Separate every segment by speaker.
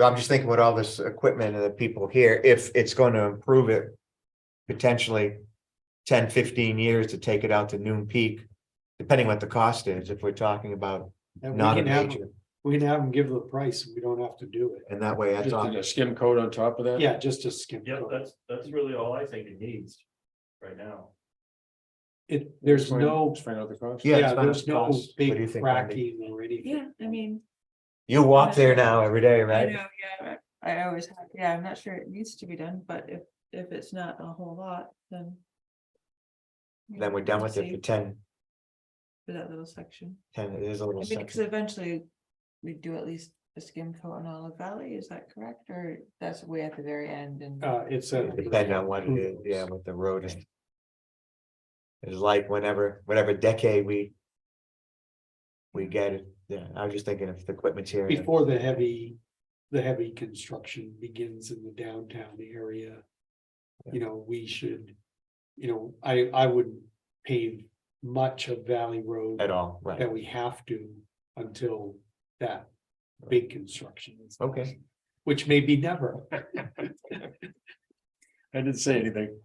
Speaker 1: I'm just thinking with all this equipment and the people here, if it's going to improve it potentially 10, 15 years to take it out to noon peak, depending what the cost is, if we're talking about
Speaker 2: And we
Speaker 1: not a
Speaker 2: can have,
Speaker 1: major,
Speaker 2: we can have them give the price, we don't have to do it,
Speaker 1: and that way I
Speaker 3: Just
Speaker 1: thought.
Speaker 3: did a skim coat on top of that?
Speaker 2: yeah, just to skip.
Speaker 4: Yeah, that's, that's really all I think it needs right now.
Speaker 2: It, there's
Speaker 3: Find-
Speaker 2: no,
Speaker 3: just Find out the cost.
Speaker 1: Yeah, it's
Speaker 2: yeah,
Speaker 1: not
Speaker 2: there's
Speaker 1: a
Speaker 2: no
Speaker 1: cost. What do you
Speaker 2: big
Speaker 1: think, Wendy?
Speaker 2: cracking or anything.
Speaker 5: Yeah, I mean,
Speaker 1: You walk there now every day,
Speaker 5: I
Speaker 1: right?
Speaker 5: know, yeah, I I always, have- yeah, I'm not sure it needs to be done, but if, if it's not a whole lot, then. you
Speaker 1: Then
Speaker 5: know,
Speaker 1: we're done with it for
Speaker 5: save
Speaker 1: 10,
Speaker 5: For that little section,
Speaker 1: 10 it is a little.
Speaker 5: I mean, because
Speaker 1: section.
Speaker 5: eventually we do at least a skim coat on Olive Valley, is that correct, or that's way at the very end and?
Speaker 2: Uh, it's a.
Speaker 1: Depending on what it is, yeah, what the road is. It's like whenever, whatever decade we. We get it, yeah, I was just thinking if the equipment's here. then-
Speaker 2: Before the heavy, the heavy construction begins in the downtown area. You know, we should, you know, I, I wouldn't pave much of Valley Road
Speaker 1: At all, right,
Speaker 2: that we have to until that big construction. is done,
Speaker 1: Okay.
Speaker 2: Which may be never.
Speaker 3: I didn't say anything.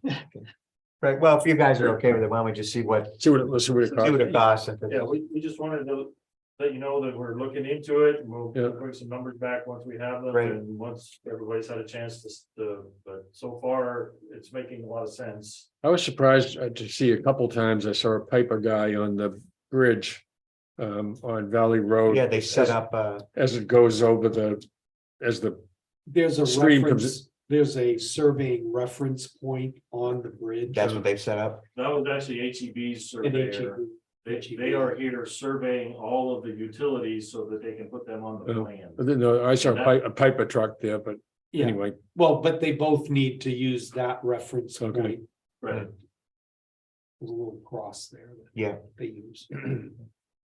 Speaker 1: right, well, if you guys are okay with it, why don't we just see what,
Speaker 3: See what, it- let's see what it
Speaker 1: see what
Speaker 3: costs.
Speaker 1: it costs, if
Speaker 4: Yeah,
Speaker 1: it-
Speaker 4: we, we just wanted to let you know that we're looking into it. and We'll
Speaker 3: Yeah.
Speaker 4: bring some numbers back once we have them
Speaker 1: Right.
Speaker 4: and once everybody's had a chance to, s- to, but so far, it's making a lot of sense.
Speaker 3: I was surprised uh, to see a couple times I saw a Piper guy on the bridge. Um, on Valley Road.
Speaker 1: yeah, they set up, uh,
Speaker 3: As it goes over the, as the,
Speaker 2: There's a
Speaker 3: Stream comes-
Speaker 2: reference, there's a surveying reference point on the bridge. E
Speaker 1: that's what they've set up,
Speaker 4: That was actually HEB's
Speaker 2: And it should
Speaker 4: surveyor.
Speaker 2: be-
Speaker 4: They, they are here surveying all of the utilities so that they can put them on the
Speaker 3: Oh.
Speaker 4: plan.
Speaker 3: no, I saw a Pi- a Piper truck there, but
Speaker 2: Yeah,
Speaker 3: anyway,
Speaker 2: well, but they both need to use that reference
Speaker 3: Okay.
Speaker 2: point.
Speaker 4: Right,
Speaker 2: There's a little cross there. that
Speaker 1: Yeah.
Speaker 2: They use.
Speaker 3: Uh,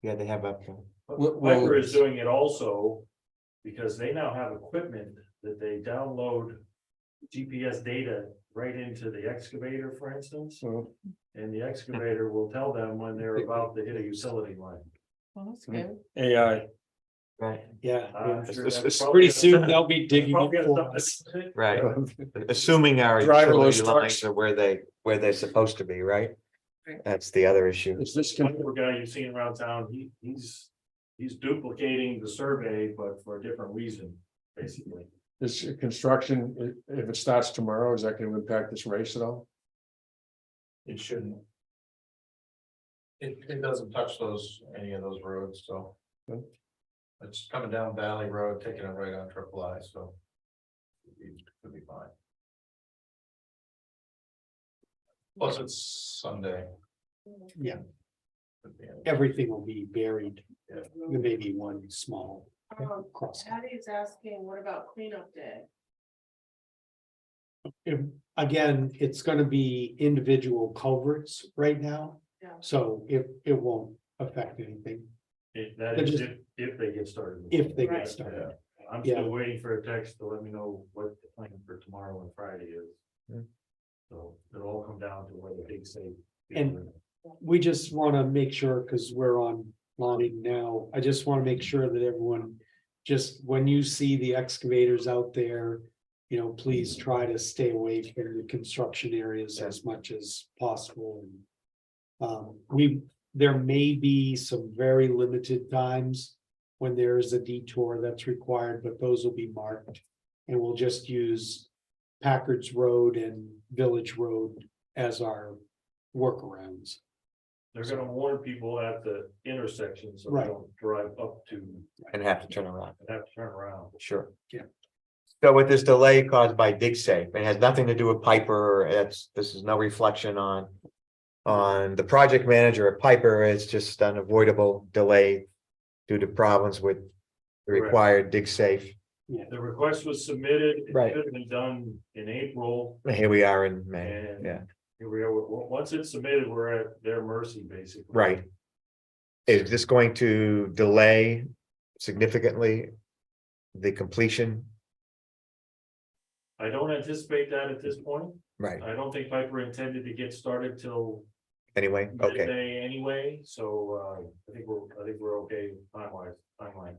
Speaker 1: yeah, they have up. uh,
Speaker 4: But Piper is doing it also because they now have equipment that they download GPS data right into the excavator, for instance,
Speaker 3: so.
Speaker 4: and the excavator will tell them when they're about to hit a utility line.
Speaker 5: Well, that's
Speaker 3: Mm.
Speaker 5: good.
Speaker 3: AI,
Speaker 1: Right,
Speaker 2: Yeah.
Speaker 4: I'm
Speaker 2: yeah.
Speaker 4: sure
Speaker 1: It's-
Speaker 4: that's
Speaker 1: it's
Speaker 4: probably
Speaker 2: Pretty
Speaker 4: gonna-
Speaker 2: soon they'll be digging up
Speaker 4: probably
Speaker 2: for
Speaker 4: gonna
Speaker 2: us.
Speaker 4: stop it.
Speaker 1: right, assuming our
Speaker 3: Driverless
Speaker 1: utility lines
Speaker 3: trucks.
Speaker 1: are where they, where they're supposed to be, right?
Speaker 5: Right.
Speaker 1: That's the other issue,
Speaker 3: is this, gonna-
Speaker 4: Piper guy you've seen around town, he, he's, he's duplicating the survey, but for a different reason, basically.
Speaker 3: this construction, i- if it starts tomorrow, is that gonna impact this race at all?
Speaker 6: It shouldn't. It, it doesn't touch those, any of those roads, so.
Speaker 3: Okay.
Speaker 6: It's coming down Valley Road, taking it right on Triple I, so. it Could be fine. Plus it's Sunday.
Speaker 2: Yeah.
Speaker 6: Could be.
Speaker 2: Everything will be buried.
Speaker 6: Yeah.
Speaker 2: There may be one small
Speaker 7: Um,
Speaker 2: cross.
Speaker 7: Patty's asking, what about cleanup day?
Speaker 2: If- Again, it's gonna be individual culverts right now.
Speaker 7: Yeah.
Speaker 2: So it, it won't affect anything
Speaker 4: If that
Speaker 2: They're
Speaker 4: is,
Speaker 2: just-
Speaker 4: if, if they get started.
Speaker 2: if they
Speaker 7: Right.
Speaker 2: get started.
Speaker 4: I'm
Speaker 2: Yeah.
Speaker 4: still waiting for a text to let me know what the plan for tomorrow and Friday
Speaker 1: Hmm.
Speaker 4: is. So it'll all come down to what the big say.
Speaker 2: And- We just wanna make sure, cause we're on lining now, I just wanna make sure that everyone. Just when you see the excavators out there, you know, please try to stay away from the construction areas as much as possible. Um, we, there may be some very limited times. When there is a detour that's required, but those will be marked. And we'll just use Packard's Road and Village Road as our workarounds.
Speaker 4: They're gonna warn people at the intersection, so they
Speaker 2: Right.
Speaker 4: don't drive up to and
Speaker 1: and have to turn around.
Speaker 4: have to turn around.
Speaker 1: Sure.
Speaker 2: Yeah.
Speaker 1: So with this delay caused by dig safe, it has nothing to do with Piper, it's, this is no reflection on. On the project manager at Piper, it's just an avoidable delay. Due to problems with the
Speaker 4: Correct.
Speaker 1: required dig safe,
Speaker 4: The request was submitted. It
Speaker 1: Right.
Speaker 4: should have been done in April
Speaker 1: here we are in May,
Speaker 4: and.
Speaker 1: Yeah.
Speaker 4: Here we are. W- Once it's submitted, we're at their mercy, basically.
Speaker 1: right? Is this going to delay significantly? The completion,
Speaker 4: I don't anticipate that at this point.
Speaker 1: right,
Speaker 4: I don't think Piper intended to get started till
Speaker 1: anyway, okay,
Speaker 4: midday anyway, so uh, I think we're, I think we're okay timeline, timeline.